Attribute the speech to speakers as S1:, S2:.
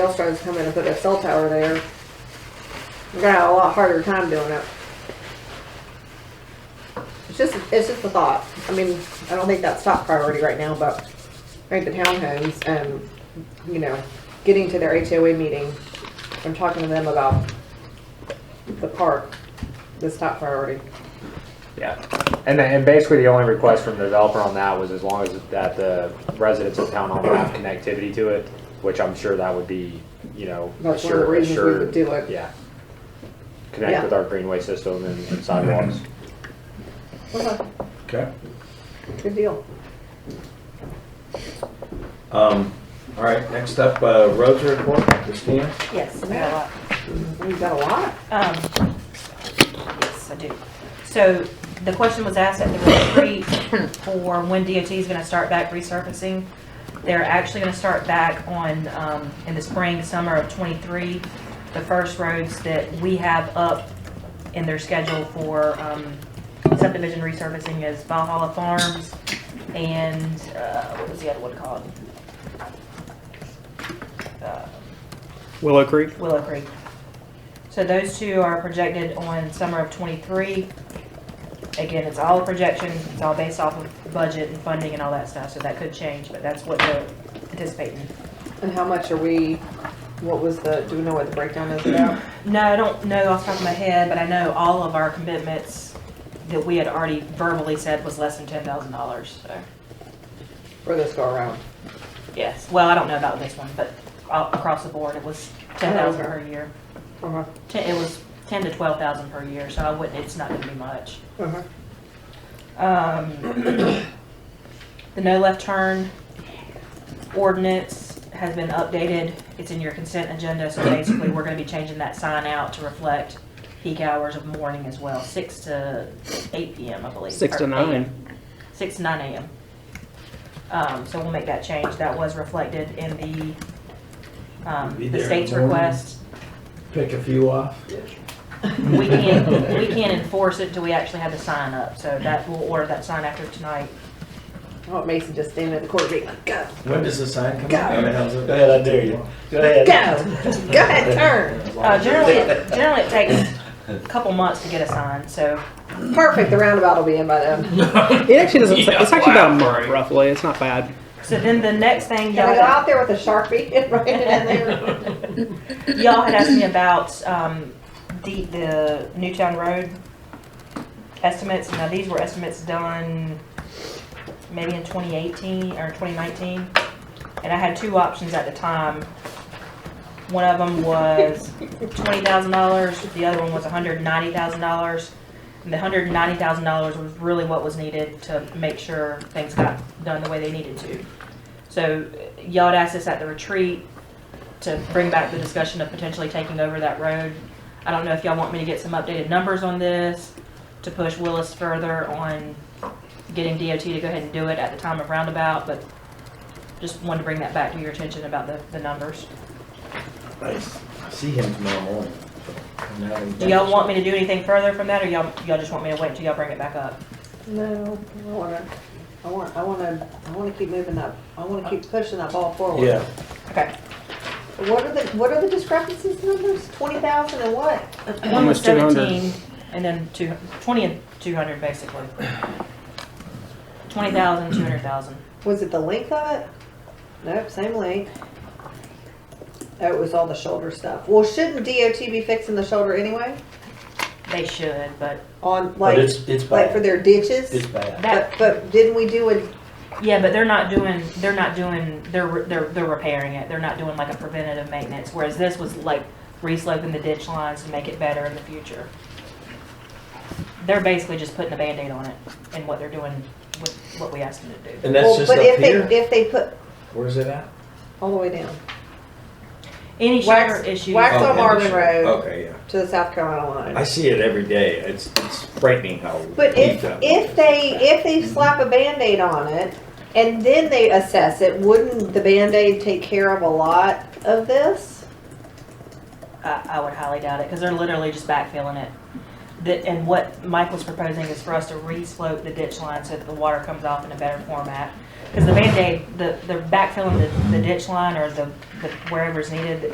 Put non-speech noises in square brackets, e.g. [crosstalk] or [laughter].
S1: else tries to come in and put a cell tower there, we're gonna have a lot harder time doing it. It's just, it's just a thought. I mean, I don't think that's top priority right now, but I think the townhomes and, you know, getting to their HOA meeting and talking to them about the park is top priority.
S2: Yeah, and then, and basically the only request from the developer on that was as long as that the residents of town hall have connectivity to it, which I'm sure that would be, you know,
S1: That's one of the
S2: assured,
S1: reasons we would
S2: assured,
S1: do it. Yeah.
S2: yeah. Connect with our greenway system and and sidewalks.
S1: Okay,
S3: Okay.
S1: Good deal.
S3: Um, all right, next up, uh, roads report, Christina.
S4: Yes, I got a lot.
S1: We've got a lot.
S4: Um, Yes, I do. So the question was asked at the retreat for when DOT is going to start back resurfacing. They're actually going to start back on, um, in the spring, summer of '23, the first roads that we have up in their schedule for um, subdivision resurfacing is Valhalla Farms and, uh, what was the other one called? Uh,
S5: Willow Creek?
S4: Willow Creek. So those two are projected on summer of twenty-three. Again, it's all projection, it's all based off of budget and funding and all that stuff, so that could change, but that's what they're anticipating.
S1: And how much are we, what was the, do we know what the breakdown is about?
S4: No, I don't know off the top of my head, but I know all of our commitments that we had already verbally said was less than ten thousand dollars, so,
S1: For this go around?
S4: yes. Well, I don't know about this one, but all- across the board, it was ten thousand per year.
S1: Uh-huh,
S4: Ten- It was ten to twelve thousand per year, so I wouldn't, it's not gonna be much.
S1: uh-huh.
S4: Um, [coughs] the no left turn ordinance has been updated. It's in your consent agenda, so basically, we're gonna be changing that sign out to reflect peak hours of morning as well, six to eight PM, I believe.
S5: Six to
S4: or 8.
S5: nine.
S4: Six to nine AM. Um, so we'll make that change. That was reflected in the,
S3: Be
S4: um, the
S3: there in
S4: state's
S3: the morning.
S4: request.
S3: Pick a few off.
S4: We can't, we can't enforce it until we actually have the sign up, so that, we'll order that sign after tonight.
S1: Oh, Mason just standing at the court gate like, go,
S3: When does the sign come
S1: Go.
S3: out? I mean, how's it-
S6: Go ahead, I dare you. Go ahead.
S1: go, just go ahead, turn.
S3: As long
S4: Uh,
S3: as you're
S4: generally,
S3: there.
S4: generally it takes a couple months to get a sign, so,
S1: Perfect, the roundabout will be in by then.
S5: It actually doesn't. say it's actually about a month, roughly. It's not bad.
S4: so then the next thing
S1: Can I go
S4: y'all,
S1: out there with a Sharpie [laughs] and write it in there?
S4: y'all had asked me about, um, the, the Newtown Road estimates, now these were estimates done maybe in twenty eighteen or twenty nineteen, and I had two options at the time. One of them was twenty thousand dollars, the other one was hundred and ninety thousand dollars. And the hundred and ninety thousand dollars was really what was needed to make sure things got done the way they needed to. So uh, y'all had asked us at the retreat to bring back the discussion of potentially taking over that road. I don't know if y'all want me to get some updated numbers on this, to push Willis further on getting DOT to go ahead and do it at the time of roundabout, but just wanted to bring that back to your attention about the, the numbers.
S3: Nice. I See him tomorrow morning. so I'm not in-
S4: Do y'all want me to do anything further from that, or y'all, y'all just want me to wait until y'all bring it back up?
S1: No, I wanna, I want, I wanna, I wanna keep moving up, I wanna keep pushing that ball forward.
S3: Yeah,
S4: Okay.
S1: What are the, what are the discrepancies numbers? Twenty thousand and what?
S4: One was
S5: Almost 200.
S4: seventeen, and then two, twenty and two hundred, basically. Twenty thousand, two hundred thousand.
S1: Was it the length of it? Nope, same length. Oh, it was all the shoulder stuff. Well, shouldn't DOT be fixing the shoulder anyway?
S4: They should, but
S1: On
S3: but
S1: like,
S3: it's, it's
S1: like for
S3: bad.
S1: their ditches?
S3: It's bad.
S4: that,
S1: But, but didn't we do it?
S4: yeah, but they're not doing, they're not doing, they're, re- they're, they're repairing it. They're not doing like a preventative maintenance, whereas this was like re-sloping the ditch lines to make it better in the future. They're basically just putting a Band-Aid on it and what they're doing with what we asked them to do.
S3: And that's
S1: well,
S3: just
S1: but
S3: up
S1: if they
S3: here?
S1: If they put,
S3: Where's it at?
S1: all the way down,
S4: Any
S1: Wax-
S4: shoulder issues.
S1: wax That's on
S3: Oh,
S1: Marvin
S3: sure.
S1: Road.
S3: Okay, yeah.
S1: to the South Carolina line.
S3: I see it every day. It's, it's frightening how.
S1: But if,
S3: deep that-
S1: if they, if they slap a Band-Aid on it and then they assess it, wouldn't the Band-Aid take care of a lot of this?
S4: I, I would highly doubt it, because they're literally just backfilling it. That, and what Mike was proposing is for us to re-slope the ditch line so that the water comes off in a better format. Because the Band-Aid, the, the backfilling the, the ditch line or the, the wherever's needed,